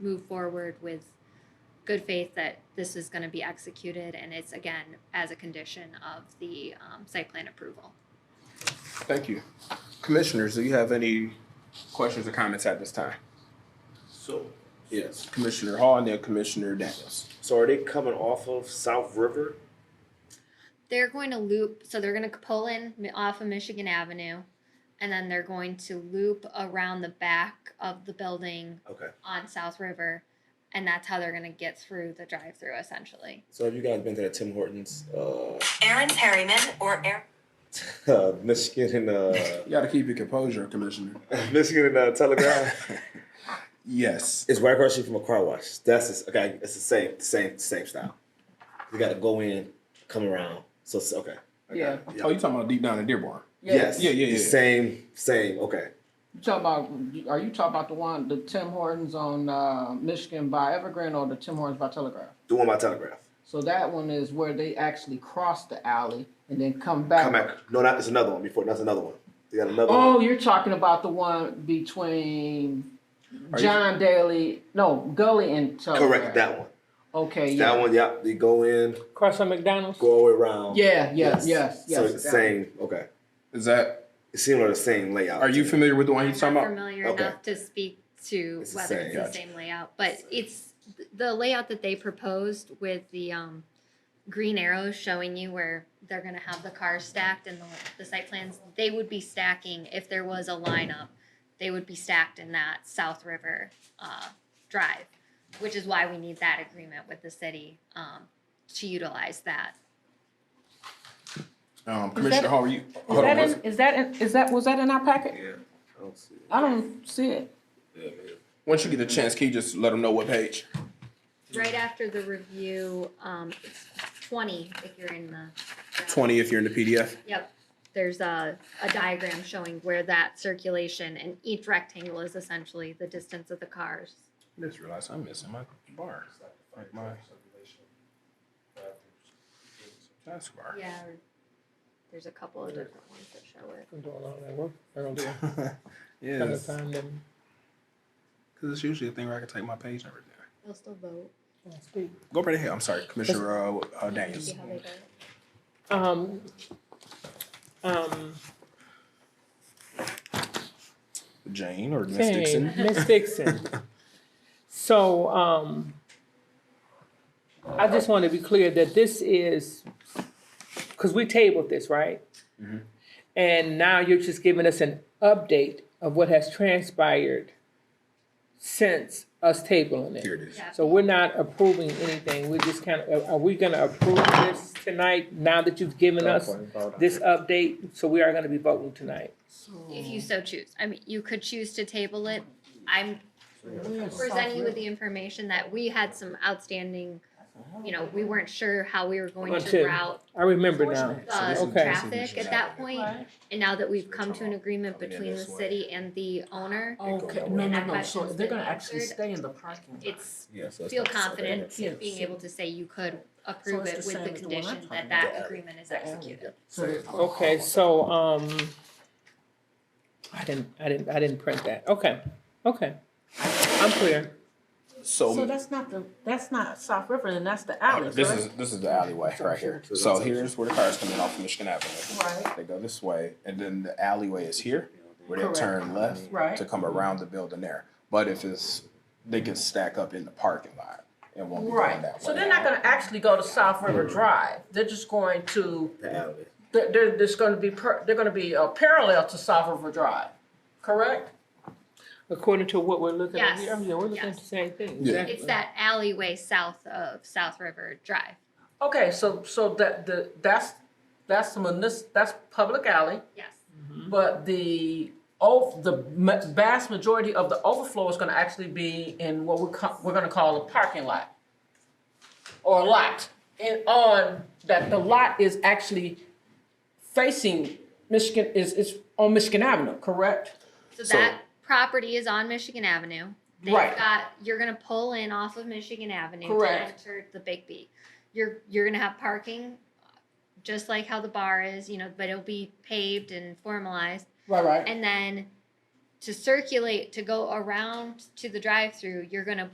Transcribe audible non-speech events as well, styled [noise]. move forward with good faith that this is going to be executed and it's again as a condition of the um, site plan approval. Thank you. Commissioners, do you have any questions or comments at this time? So, Yes. Commissioner Hall and then Commissioner Daniels. so are they coming off of South River? They're going to loop, so they're going to pull in mi- off of Michigan Avenue and then they're going to loop around the back of the building Okay. on South River and that's how they're going to get through the drive-through essentially. So have you guys been to that Tim Hortons, uh, [laughs] Aaron Perryman or Aaron. Michigan and uh, [laughs] You gotta keep your composure, Commissioner. Michigan and uh, [laughs] Telegraph? Yes. it's right across the street from a car wash. That's just, okay. It's the same, same, same style. You got to go in, come around. So it's- okay. okay. Yeah. Oh, you talking about deep down in Dearborn? Yes. Yeah, yeah, yeah. Same, same. Okay. You talk about, are you talking about the one, the Tim Hortons on uh, Michigan by Evergreen or the Tim Hortons by Telegraph? Doing my Telegraph. So that one is where they actually cross the alley and then come back. Come back. No, not. It's another one before. That's another one. You got another one. Oh, you're talking about the one between Are you- John Daly, no, Gully and Telegraph. Correct. That one. Okay, yeah. That one. Yeah. They go in, Across from McDonald's. go all the way around. Yeah, yes, yes, yes. so it's the that one. same. Okay. Is that, It's similar to the same layout. are you familiar with the one I'm you're talking not about? familiar Okay. enough to speak to It's the whether same, it's the gotcha. same layout, but it's the layout that they proposed with the um green arrows showing you where they're gonna have the cars stacked and the the site plans, they would be stacking if there was a lineup. They would be stacked in that South River uh drive, which is why we need that agreement with the city um to utilize that. Um, Commissioner Hall, are you? Is hold on that one in, sec- is that in, is that, was that in our packet? Yeah. I don't see it. I don't see it. Yeah, man. Once you get a chance, can you just let them know what page? Right after the review, um it's twenty if you're in the. Twenty if you're in the PDF. Yep, there's a, a diagram showing where that circulation and each rectangle is essentially the distance of the cars. I just realized I'm missing my bar, like my task bar. Yeah. There's a couple of different ones that show it. I'm doing all that work. I don't do kind of [laughs] Yes, time them. cause it's usually a thing where I can take my page and everything. They'll still vote, Speak. Go right ahead, I'm sorry, Commissioner, uh, uh, Daniels. see how they vote. Um, um, Jane or Miss Dixon. Dixon? Miss Dixon. [laughs] So, um, I just want to be clear that this is, because we tabled this, right? And now you're just giving us an update of what has transpired since us tabling it. Here it is. So we're not approving anything, we're just kind of, are we gonna approve this tonight, now that you've given us this update? So we are gonna be voting tonight. If you so choose, I mean, you could choose to table it. I'm presenting you with the information that we had some outstanding, you know, we weren't sure how we were going to Until- route I remember So now. this the is- Okay. traffic at that point. Right. And now that we've come to an agreement Coming in between the this way. city and the owner, Okay, And no, that no, no, so question's they're been gonna actually answered. stay in the parking lot. it's Yes. that's- feel that's- confident Yeah. being able to say you could approve it's the it with same the as the one I'm condition that talking that about. agreement is executed. So they're- Okay, so, um, I didn't, I didn't, I didn't print that, okay, okay, I'm clear. So So, that's not the, that's not South River, and that's the alley, this right? is, this is the alleyway right here. So here's where the cars come in off of Michigan Avenue. Right, They go this way, and then the alleyway is here, where they Correct. turn left Right. to come around the building there. But if it's, they can stack up in the parking lot and won't be going right. that way. So they're not gonna actually go to South River Drive. They're just going to, The alley. they're, they're just gonna be, per- they're gonna be uh, parallel to South River Drive, correct? According to what we're looking at here, Oh, Yes, yeah, we're looking at yes. the same thing, Yeah. exactly. It's that alleyway south of South River Drive. Okay, so, so that, the, that's, that's the munis, that's public alley, Yes. but the, oh, the ma- vast majority of the overflow is gonna actually be in what we're, co- we're gonna call a parking lot. Or lot, and on, that the lot is actually facing Michigan, is, is on Michigan Avenue, correct? So So- that property is on Michigan Avenue. They've Right. got, you're gonna pull in off of Michigan Avenue to Correct. enter the Big B. You're, you're gonna have parking, just like how the bar is, you know, but it'll be paved and formalized. Right, right. And then to circulate, to go around to the drive-through, you're gonna